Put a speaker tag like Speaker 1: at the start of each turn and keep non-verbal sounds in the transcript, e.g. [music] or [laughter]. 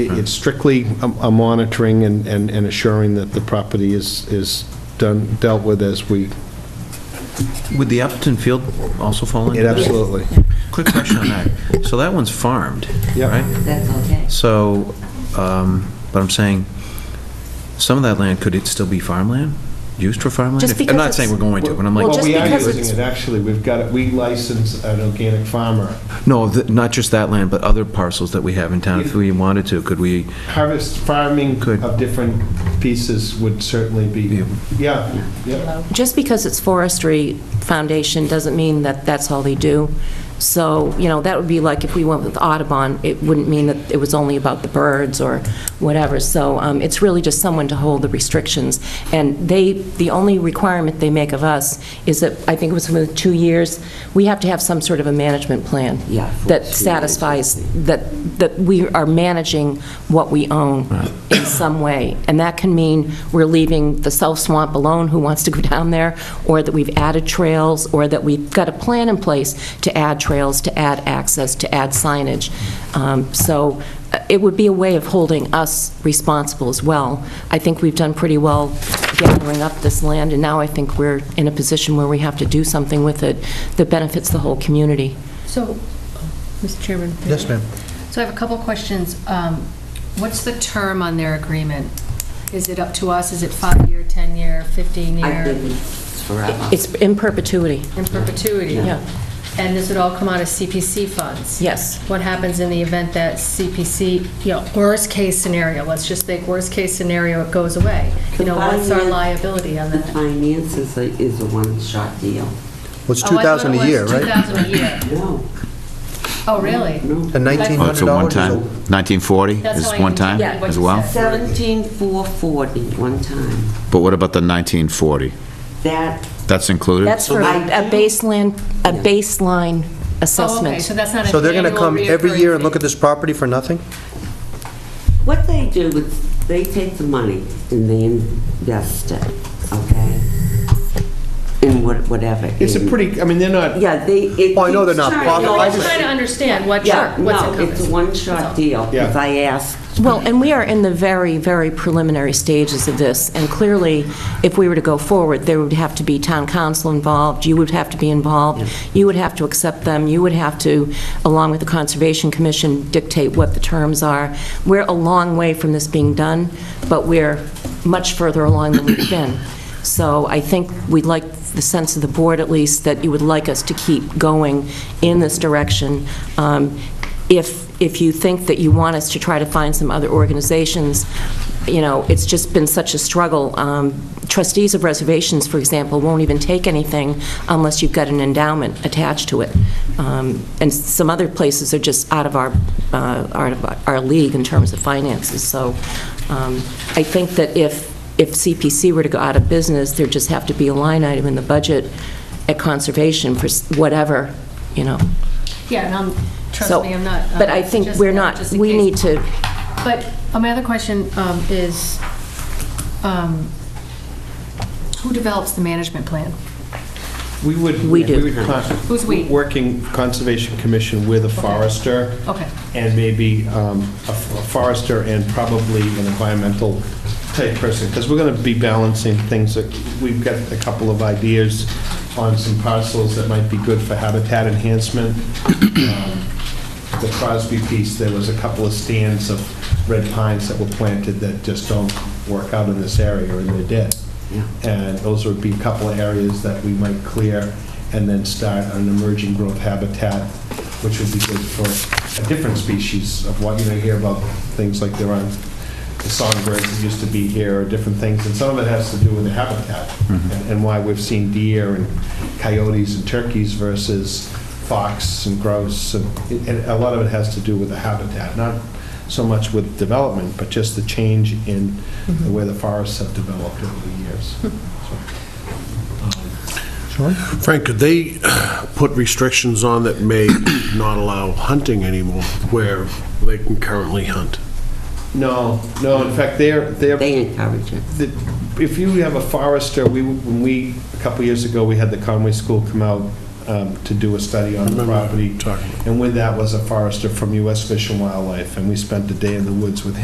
Speaker 1: It's
Speaker 2: Hmm.
Speaker 1: strictly a a monitoring and and and assuring that the property is, is done, dealt with as we,
Speaker 2: Would the Appleton Field also fall into
Speaker 1: it
Speaker 2: that?
Speaker 1: absolutely.
Speaker 2: Quick question on that. So that one's farmed,
Speaker 1: Yeah.
Speaker 2: right?
Speaker 3: That's okay.
Speaker 2: So, um, but I'm saying, some of that land, could it still be farmland? Used for farmland?
Speaker 4: Just
Speaker 2: If-
Speaker 4: because
Speaker 2: I'm not
Speaker 4: it's-
Speaker 2: saying we're going to, but I'm
Speaker 4: Well,
Speaker 1: Well,
Speaker 2: like, "Oh,
Speaker 4: just
Speaker 1: we are
Speaker 4: because
Speaker 1: using
Speaker 4: it's-
Speaker 1: it, actually, we've got, it. we license an organic farmer.
Speaker 2: no, th- not just that land, but other parcels that we have in town, if we wanted to, could we?
Speaker 1: Harvest farming
Speaker 2: Good.
Speaker 1: of different pieces would certainly be,
Speaker 2: Yeah.
Speaker 1: yeah, yeah.
Speaker 4: Just because it's forestry foundation doesn't mean that that's all they do. So, you know, that would be like if we went with Audubon, it wouldn't mean that it was only about the birds or whatever. So um, it's really just someone to hold the restrictions. And they, the only requirement they make of us is that, I think it was within two years, we have to have some sort of a management plan.
Speaker 3: Yeah, for
Speaker 4: That
Speaker 3: two years,
Speaker 4: satisfies, that, that we are managing what we own in some way. And that can mean we're leaving the South Swamp alone, who wants to go [laughs] down there, or that we've added trails, or that we've got a plan in place to add trails, to add access, to add signage. Um, So uh, it would be a way of holding us responsible as well. I think we've done pretty well gathering up this land, and now I think we're in a position where we have to do something with it that benefits the whole community.
Speaker 5: So, Mr. Chairman?
Speaker 2: Yes, ma'am.
Speaker 5: So I have a couple of questions. Um, What's the term on their agreement? Is it up to us? Is it five-year, 10-year,
Speaker 3: I
Speaker 5: 15-year,
Speaker 3: think it's forever.
Speaker 4: It's in perpetuity.
Speaker 5: in perpetuity?
Speaker 4: Yeah.
Speaker 5: And this would all come out of CPC funds?
Speaker 4: Yes.
Speaker 5: What happens in the event that CPC, you know, worst-case scenario, let's just think worst-case scenario, it goes away? You know, what's our
Speaker 3: Combined-
Speaker 5: liability on
Speaker 3: The
Speaker 5: that?
Speaker 3: finance is a, is a one-shot deal.
Speaker 6: Well, it's
Speaker 5: Oh, I thought
Speaker 6: 2,000 a
Speaker 5: it
Speaker 6: year,
Speaker 5: was
Speaker 6: right?
Speaker 5: 2,000 a year.
Speaker 3: No,
Speaker 5: Oh, really?
Speaker 3: no.
Speaker 6: And
Speaker 5: Oh,
Speaker 6: $1,900
Speaker 7: it's
Speaker 6: is
Speaker 7: a
Speaker 6: a...
Speaker 7: one-time, 1940
Speaker 5: That's
Speaker 7: is
Speaker 5: how I
Speaker 7: one-time
Speaker 5: interpreted what
Speaker 7: as
Speaker 5: you
Speaker 7: well?
Speaker 5: said.
Speaker 3: Seventeen four forty one time.
Speaker 7: But what about the 1940?
Speaker 3: That,
Speaker 7: That's included?
Speaker 4: That's for a a baseline, a
Speaker 5: Oh,
Speaker 4: baseline
Speaker 5: okay,
Speaker 4: assessment.
Speaker 5: so that's not an
Speaker 6: So they're going to
Speaker 5: annual
Speaker 6: come every
Speaker 5: reoccurring
Speaker 6: year and look
Speaker 5: fee.
Speaker 6: at this property for nothing?
Speaker 3: what they do is, they take the money and they invest it, okay? In what- whatever.
Speaker 1: It's a
Speaker 3: in-
Speaker 1: pretty, I mean, they're not,
Speaker 3: Yeah, they, it.
Speaker 6: Oh, I know they're not
Speaker 3: keeps
Speaker 6: profit-
Speaker 3: turning.
Speaker 5: No,
Speaker 6: I
Speaker 5: I'm just
Speaker 6: just-
Speaker 5: trying to understand what,
Speaker 3: Yeah,
Speaker 5: chart- what's
Speaker 3: no,
Speaker 5: encompassed.
Speaker 3: it's a one-shot deal,
Speaker 1: Yeah.
Speaker 3: because I asked.
Speaker 4: Well, and we are in the very, very preliminary stages of this, and clearly, if we were to go forward, there would have to be town council involved, you would have to be involved, you would have to accept them, you would have to, along with the Conservation Commission, dictate what the terms are. We're a long way from this being done, but we're much further along than we've been. So I think we'd like the sense of the board, at least, that you would like us to keep going in this direction. Um, If, if you think that you want us to try to find some other organizations, you know, it's just been such a struggle. Um, Trustees of reservations, for example, won't even take anything unless you've got an endowment attached to it. Um, And some other places are just out of our, uh, out of our league in terms of finances. So um, I think that if if CPC were to go out of business, there'd just have to be a line item in the budget at conservation for s- whatever, you know.
Speaker 5: Yeah, and I'm,
Speaker 4: So-
Speaker 5: trust me, I'm not.
Speaker 4: But
Speaker 5: uh,
Speaker 4: I think
Speaker 5: just-
Speaker 4: we're not,
Speaker 5: just in
Speaker 4: we
Speaker 5: case.
Speaker 4: need to,
Speaker 5: But uh, my other question um, is, um, who develops the management plan?
Speaker 1: we would.
Speaker 4: We do.
Speaker 1: would con-
Speaker 5: Who's we?
Speaker 1: Working Conservation Commission with a forester.
Speaker 5: Okay.
Speaker 1: And maybe um, a f- a forester and probably an environmental type person, because we're going to be balancing things. that- We've got a couple of ideas on some parcels that might be good for habitat enhancement. Um, The Crosby piece, there was a couple of stands of red pines that were planted that just don't work out in this area, and they're dead.
Speaker 3: Yeah.
Speaker 1: And those would be a couple of areas that we might clear and then start an emerging growth habitat, which would be good for a different species of what, you know, you hear about things like there are the songbirds that used to be here or different things. And some of it has to do with the habitat and- and why we've seen deer and coyotes and turkeys versus fox and grouse. And it- and a lot of it has to do with the habitat, not so much with development, but just the change in the way the forests have developed over the years.
Speaker 8: Frank, could they put restrictions on that may not allow hunting anymore where they can currently hunt?
Speaker 1: No, no, in fact, they're, they're,
Speaker 3: They encourage it.
Speaker 1: the- if you have a forester, we, when we, a couple years ago, we had the Conway School come out um, to do a study on the
Speaker 8: Remember
Speaker 1: property.
Speaker 8: talking.
Speaker 1: And with that was a forester from U.S. Fish and Wildlife, and we spent a day in the woods with him.